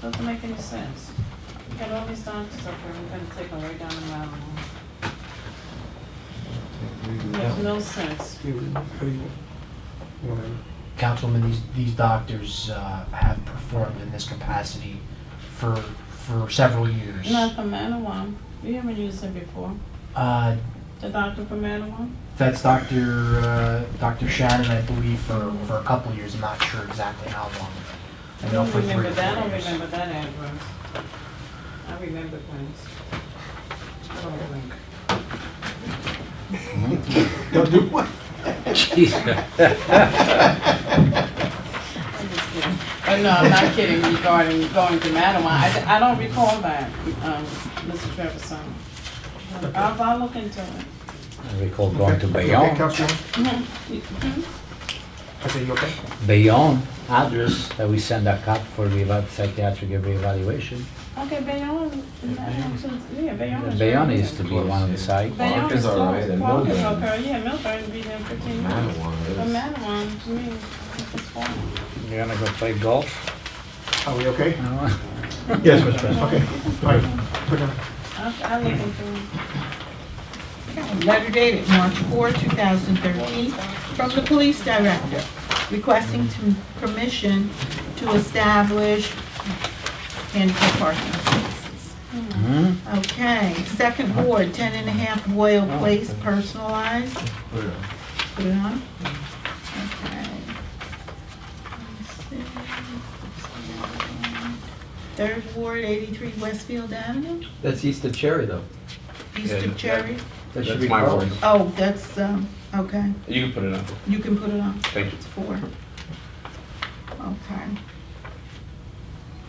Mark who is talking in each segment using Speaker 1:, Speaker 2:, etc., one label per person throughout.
Speaker 1: Doesn't make any sense. We got all these doctors up there, we're gonna take them right down the mountain. Makes no sense.
Speaker 2: You- How do you want to?
Speaker 3: Councilman, these, these doctors uh, have performed in this capacity for, for several years.
Speaker 1: Not for Manawam, we haven't used him before.
Speaker 3: Uh,
Speaker 1: The doctor for Manawam?
Speaker 3: That's Dr., uh, Dr. Shannon, I believe, for, for a couple of years, I'm not sure exactly how long.
Speaker 1: I
Speaker 3: know
Speaker 1: don't
Speaker 3: for three
Speaker 1: remember
Speaker 3: to
Speaker 1: that, I
Speaker 3: four
Speaker 1: don't
Speaker 3: years.
Speaker 1: remember that address. I remember things. I don't remember.
Speaker 2: Don't do what?
Speaker 1: I'm just kidding. But Uh, no, I'm not kidding regarding going to Madawan. I, I don't recall that, um, Mr. Trevisan. I'll, I'll look into it.
Speaker 4: I recall going to
Speaker 2: Okay,
Speaker 4: Bayonne,
Speaker 2: Councilwoman?
Speaker 1: Mhm.
Speaker 2: I say you okay?
Speaker 4: Bayonne address that we send a cop for reva- psychiatric reevaluation.
Speaker 1: Okay, Bayonne, yeah, Bayonne is.
Speaker 4: Bayonne used to be one of the site.
Speaker 1: Bayonne
Speaker 5: Park is
Speaker 1: is
Speaker 5: all
Speaker 1: close.
Speaker 5: right, and
Speaker 1: Park is
Speaker 5: Milburn.
Speaker 1: okay, yeah, Milburn be there fifteen minutes. But
Speaker 5: Madawan is.
Speaker 1: Madawan, to me, it's far.
Speaker 4: You're gonna go play golf?
Speaker 2: Are we okay?
Speaker 4: No.
Speaker 2: Yes, Mr. President. Okay, all right. Put down.
Speaker 1: I'll, I'll look into it.
Speaker 6: Letter dated March 4, 2013, from the police director requesting to- permission to establish handicap parking spaces.
Speaker 4: Hmm?
Speaker 6: Okay, second ward, 10 and a half Boyle Place, personalized. Put it on? Okay. Let me see. Third ward, 83 Westfield Avenue,
Speaker 5: That's East of Cherry though.
Speaker 6: east
Speaker 5: Yeah,
Speaker 6: of Cherry.
Speaker 4: That should
Speaker 5: That's
Speaker 4: be
Speaker 5: my
Speaker 4: golf.
Speaker 5: word.
Speaker 6: Oh, that's, um, okay.
Speaker 5: You can put it on.
Speaker 6: You can put it on.
Speaker 5: Thank you.
Speaker 6: It's four. Okay.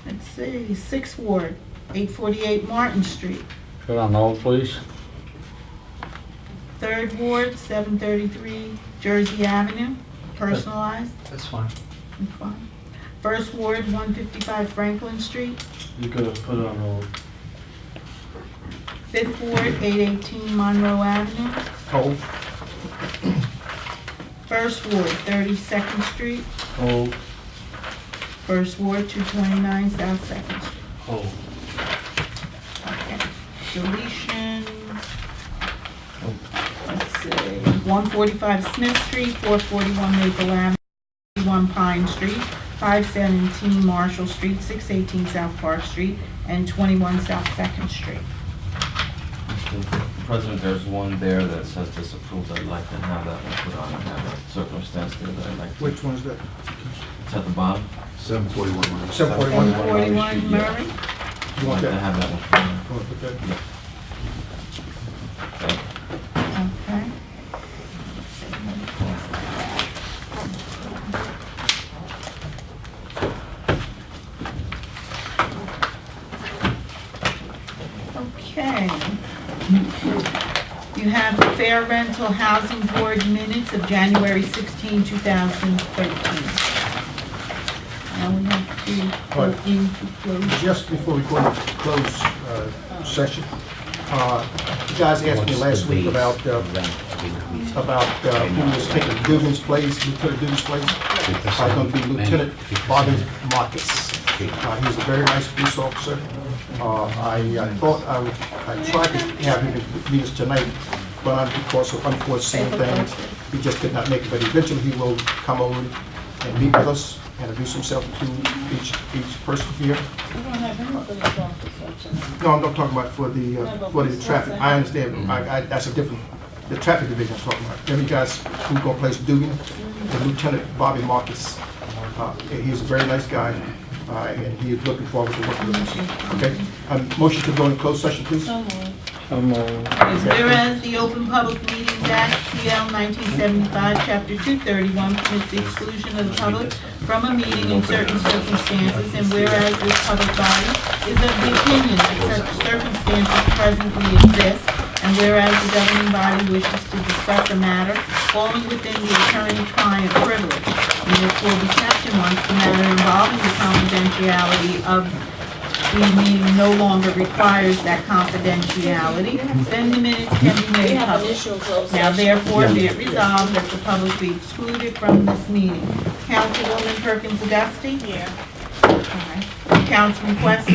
Speaker 6: Let's see, Sixth Ward, eight forty-eight Martin Street.
Speaker 4: Put on hold, please.
Speaker 6: Third Ward, seven thirty-three Jersey Avenue, personalized.
Speaker 4: That's fine.
Speaker 6: Okay. First Ward, one fifty-five Franklin Street.
Speaker 3: You could put it on hold.
Speaker 6: Fifth Ward, eight eighteen Monroe Avenue.
Speaker 2: Hold,
Speaker 6: First Ward, thirty-second Street.
Speaker 3: Hold,
Speaker 6: First Ward, two twenty-nine South Second Street.
Speaker 3: hold.
Speaker 6: Okay. Deletion. Let's see, 145 Smith Street, 441 Maple Avenue, 1 Pine Street, 517 Marshall Street, 618 South Park Street, and 21 South Second Street.
Speaker 5: President, there's one there that says disapproved. I'd like to have that one put on. I have a circumstance there that I'd like to.
Speaker 2: which one's that?
Speaker 5: It's at the bottom.
Speaker 7: Seven forty-one.
Speaker 2: 741.
Speaker 6: 141 Murray,
Speaker 2: You
Speaker 5: I'd like
Speaker 2: want
Speaker 5: to
Speaker 2: that?
Speaker 5: have that one put on.
Speaker 2: You want to put that?
Speaker 5: Thank you.
Speaker 6: okay. Okay. You have the Fair Rental Housing Board minutes of January 16, 2013. Now we have to go
Speaker 2: Right.
Speaker 6: into closed.
Speaker 2: Just before we go into close uh, session, uh, you guys asked me last week about, uh, about uh, who was taking Dugan's place, Lieutenant Dugan's place. It's going to be Lieutenant Bobby Marcus. Uh, He's a very nice police officer. Uh, I I thought I would, I tried to have him meet us tonight, but uh, because of unforeseen things, he just could not make it. But eventually, he will come over and meet with us, and introduce himself to each, each person here.
Speaker 1: We don't have any for the doctor section.
Speaker 2: No, I'm not talking about for the,
Speaker 1: No,
Speaker 2: uh,
Speaker 1: but
Speaker 2: for the
Speaker 1: what's
Speaker 2: traffic,
Speaker 1: that?
Speaker 2: I understand, I, I, that's a different, the traffic division I'm talking about. Then we got, who gonna place Dugan, the Lieutenant Bobby Marcus. Uh, and he's a very nice guy, uh, and he is looking forward to working with us, okay? Um, motion to go in closed session, please.
Speaker 1: So moved.
Speaker 6: Whereas the Open Public Meetings Act, CL 1975, Chapter 231, permits the exclusion of the public from a meeting in certain circumstances, and whereas this public body is of the opinion that such circumstances presently exist, and whereas the governing body wishes to discuss a matter falling within the attorney-client privilege, and this will be captioned once the matter involving the confidentiality of the meeting no longer requires that confidentiality, then the minutes can be
Speaker 1: We
Speaker 6: made
Speaker 1: have an
Speaker 6: public.
Speaker 1: issue in closed
Speaker 6: Now
Speaker 1: session.
Speaker 6: therefore be it resolved that the public be excluded from this meeting. Councilwoman Perkins Dusty?
Speaker 1: Yeah.
Speaker 6: Aye. Councilman Questa.